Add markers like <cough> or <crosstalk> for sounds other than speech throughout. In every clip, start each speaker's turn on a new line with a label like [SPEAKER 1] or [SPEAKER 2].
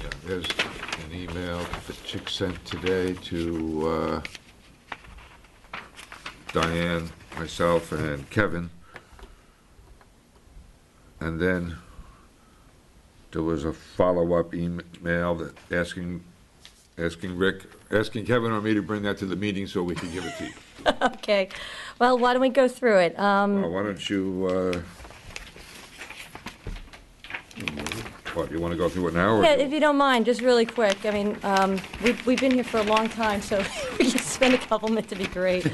[SPEAKER 1] Yeah, there's an email that Chick sent today to uh, Diane, myself, and Kevin. And then there was a follow-up email that asking, asking Rick, asking Kevin or me to bring that to the meeting so we could give it to you.
[SPEAKER 2] <laughs> Okay, well, why don't we go through it? Um,
[SPEAKER 1] Uh, Why don't you, uh, what, you want to go through it now? or-
[SPEAKER 2] Yeah, if you don't mind, just really quick, I mean, um, we've, we've been here for a long time, so <laughs> we can spend a couple minutes, it'd be great.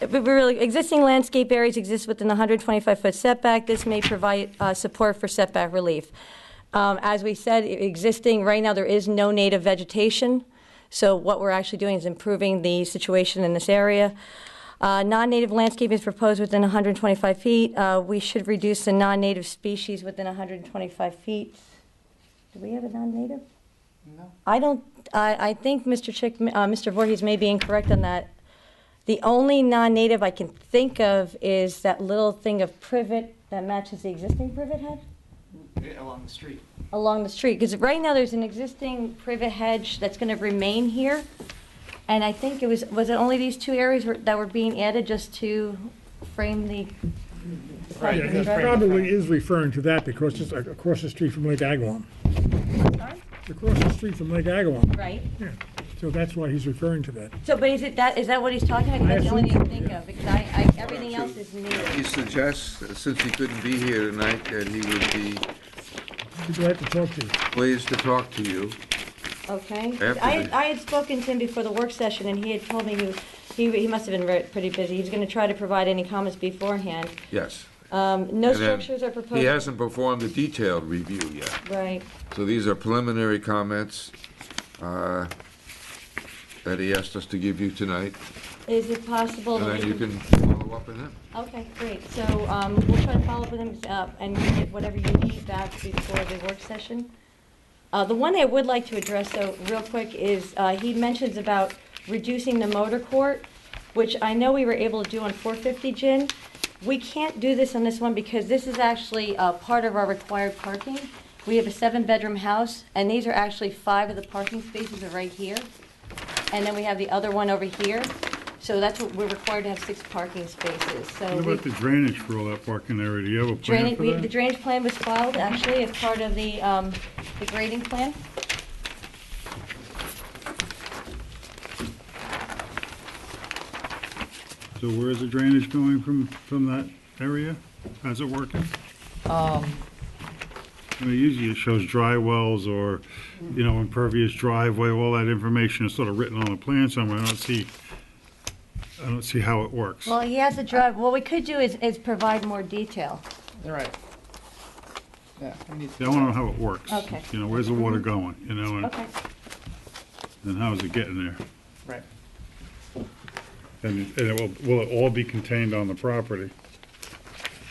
[SPEAKER 2] But we're really, existing landscape areas exist within the 125-foot setback. This may provide uh, support for setback relief. Um, As we said, i- existing, right now, there is no native vegetation, so what we're actually doing is improving the situation in this area. Uh, Non-native landscape is proposed within 125 feet. Uh, We should reduce the non-native species within 125 feet. Do we have a non-native? No. I don't, I, I think Mr. Chick, uh, Mr. Voorhees may be incorrect on that. The only non-native I can think of is that little thing of privet that matches the existing privet hedge
[SPEAKER 3] Yeah, Along the street.
[SPEAKER 2] along the street. Because right now, there's an existing privet hedge that's going to remain here. And I think it was, was it only these two areas were- that were being added just to frame the?
[SPEAKER 3] Right,
[SPEAKER 4] Yeah,
[SPEAKER 3] it's
[SPEAKER 4] it
[SPEAKER 3] Right.
[SPEAKER 4] probably is referring to that because it's across the street from Lake Agawam.
[SPEAKER 2] Sorry?
[SPEAKER 4] Across the street from Lake Agawam,
[SPEAKER 2] Right.
[SPEAKER 4] yeah. So that's why he's referring to that.
[SPEAKER 2] So, but is it that, is that what he's talking about? 'Cause
[SPEAKER 4] I
[SPEAKER 2] That's the only thing I
[SPEAKER 4] assume so,
[SPEAKER 2] think
[SPEAKER 4] yeah.
[SPEAKER 2] of, because I, I, everything else is new.
[SPEAKER 1] He suggests, that since he couldn't be here tonight, that he would be
[SPEAKER 4] Be glad to talk to you.
[SPEAKER 1] pleased to talk to you.
[SPEAKER 2] Okay.
[SPEAKER 1] After
[SPEAKER 2] I,
[SPEAKER 1] the-
[SPEAKER 2] I had spoken to him before the work session, and he had told me he was, he, he must have been very, pretty busy. He's gonna try to provide any comments beforehand.
[SPEAKER 1] Yes.
[SPEAKER 2] Um, no
[SPEAKER 1] And then
[SPEAKER 2] structures are
[SPEAKER 1] He
[SPEAKER 2] proposed,
[SPEAKER 1] hasn't performed a detailed review yet,
[SPEAKER 2] right,
[SPEAKER 1] so these are preliminary comments uh, that he asked us to give you tonight,
[SPEAKER 2] is it possible?
[SPEAKER 1] and
[SPEAKER 2] that
[SPEAKER 1] then
[SPEAKER 2] we
[SPEAKER 1] you can follow up with him.
[SPEAKER 2] Okay, great, so, um, we'll try to follow up with him, uh, and get whatever you need back before the work session. Uh, the one I would like to address, though, real quick, is, uh, he mentions about reducing the motor court, which I know we were able to do on four fifty gin. We can't do this on this one because this is actually, uh, part of our required parking. We have a seven-bedroom house, and these are actually five of the parking spaces are right here. And then we have the other one over here, so that's what, we're required to have six parking spaces, so.
[SPEAKER 5] What
[SPEAKER 2] we-
[SPEAKER 5] about the drainage for all that parking area? Do you have a plan
[SPEAKER 2] Drainage,
[SPEAKER 5] for
[SPEAKER 2] we- the
[SPEAKER 5] that?
[SPEAKER 2] drainage plan was filed actually as part of the, um, the grading plan.
[SPEAKER 5] So where is the drainage going from, from that area? How's it working?
[SPEAKER 2] Um,
[SPEAKER 5] I mean, usually it shows dry wells or, you know, impervious driveway, all that information is sort of written on a plan somewhere. I don't see, I don't see how it works.
[SPEAKER 2] Well, he has a drive, what we could do is, is provide more detail.
[SPEAKER 3] All right. Yeah, I need,
[SPEAKER 5] Yeah, I want to know how it works.
[SPEAKER 2] Okay.
[SPEAKER 5] You know, where's the water going, you know, and,
[SPEAKER 2] Okay,
[SPEAKER 5] and how is it getting there?
[SPEAKER 3] right.
[SPEAKER 5] And, and it will, will it all be contained on the property?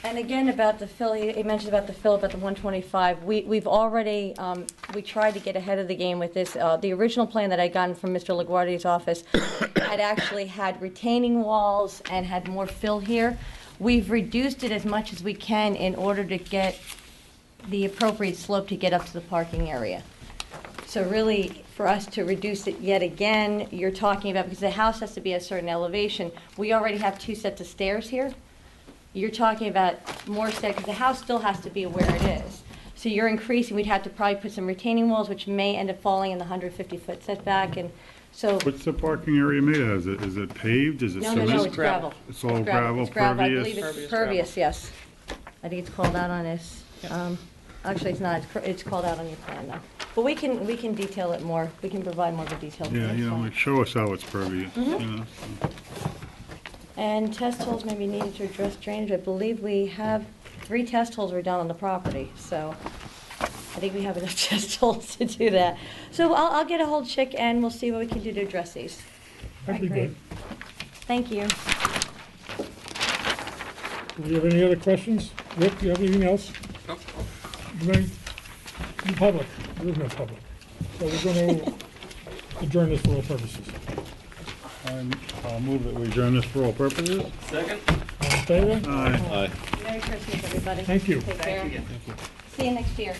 [SPEAKER 2] and again, about the fill, he he mentioned about the fill, about the one twenty-five, we, we've already, um, we tried to get ahead of the game with this, uh, the original plan that I'd gotten from Mr. LaGuardia's office <coughs> had actually had retaining walls and had more fill here. We've reduced it as much as we can in order to get the appropriate slope to get up to the parking area. So really, for us to reduce it yet again, you're talking about, because the house has to be at a certain elevation, we already have two sets of stairs here. You're talking about more stairs, because the house still has to be where it is. So you're increasing, we'd have to probably put some retaining walls, which may end up falling in the 150-foot setback, and so,
[SPEAKER 5] What's the parking area made out of? Is it, is it paved? Is it
[SPEAKER 2] no,
[SPEAKER 5] cement?
[SPEAKER 2] no, no,
[SPEAKER 3] just
[SPEAKER 2] it's gravel.
[SPEAKER 5] It's all gravel,
[SPEAKER 2] It's gravel, I believe it's
[SPEAKER 5] pervious.
[SPEAKER 3] Pervious
[SPEAKER 2] pervious, yes. I think it's called out on this. um, Actually, it's not, It's cr- it's called out on your plan, though. But we can, we can detail it more, we can provide more of a detailed
[SPEAKER 5] Yeah, you know,
[SPEAKER 2] plan.
[SPEAKER 5] like, show us how it's pervious,
[SPEAKER 2] Mm-hmm.
[SPEAKER 5] you know?
[SPEAKER 2] And test holes may be needed to address drainage, I believe we have, three test holes were done on the property, so I think we have enough <laughs> test holes to do that. So I'll, I'll get a hold check and we'll see what we can do to address these.
[SPEAKER 4] That'd be
[SPEAKER 2] Great.
[SPEAKER 4] good.
[SPEAKER 2] Thank you.
[SPEAKER 4] Do you have any other questions? Rick, do you have anything else? No. In public, there is no public. So we're going to adjourn this for all purposes.
[SPEAKER 5] I'm- I'll move that we adjourn this for all purposes.
[SPEAKER 4] All in favor?
[SPEAKER 5] Aye.
[SPEAKER 2] Merry Christmas, everybody.
[SPEAKER 4] Thank you.
[SPEAKER 2] Take care. See you next year.